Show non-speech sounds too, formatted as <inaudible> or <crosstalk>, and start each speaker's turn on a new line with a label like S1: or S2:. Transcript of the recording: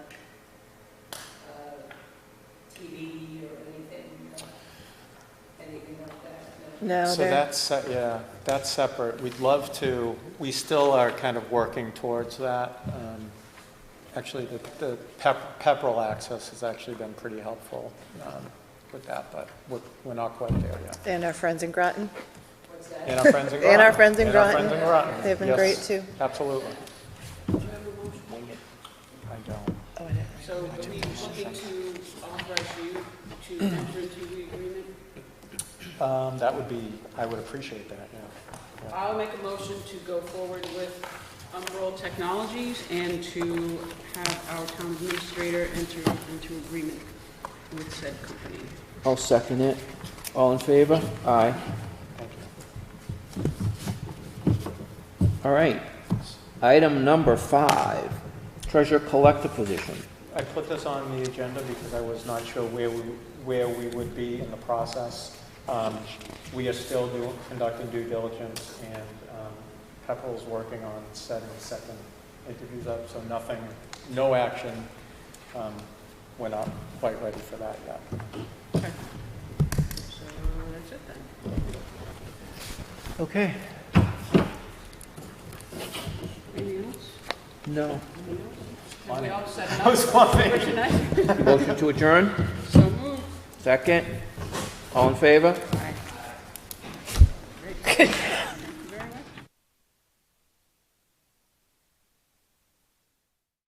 S1: No,
S2: So
S1: they're,
S2: that's, se- yeah, that's separate. We'd love to, we still are kind of working towards that. Um, Actually, the the pep- Pepperell access has actually been pretty helpful um, with that, but we're we're not quite there yet.
S1: and our friends in Groton,
S2: And
S1: <laughs>
S2: our friends in Groton.
S1: And our friends in
S2: And our
S1: Groton.
S2: friends in Groton.
S1: They've been
S2: Yes,
S1: great, too.
S2: Absolutely. I don't.
S1: oh, I know.
S3: So are we looking to authorize you to enter into the agreement?
S2: Um, That would be, I would appreciate that, yeah.
S3: I'll make a motion to go forward with Umbrel Technologies and to have our town administrator enter into agreement with said company.
S4: I'll second it. All in favor? Aye.
S2: Thank you.
S4: All right. Item number five, treasure collector position.
S2: I put this on the agenda because I was not sure where we, where we would be in the process. Um, We are still doing, conducting due diligence, and um, Pepperell's working on setting second interviews up, so nothing, no action. Um, We're not quite ready for that yet.
S3: So that's it then.
S4: Okay.
S3: Anything else?
S4: No.
S3: Have we all set
S2: I
S3: enough
S2: was wondering,
S3: for tonight?
S4: Motion to adjourn?
S3: So moved.
S4: Second? All in favor?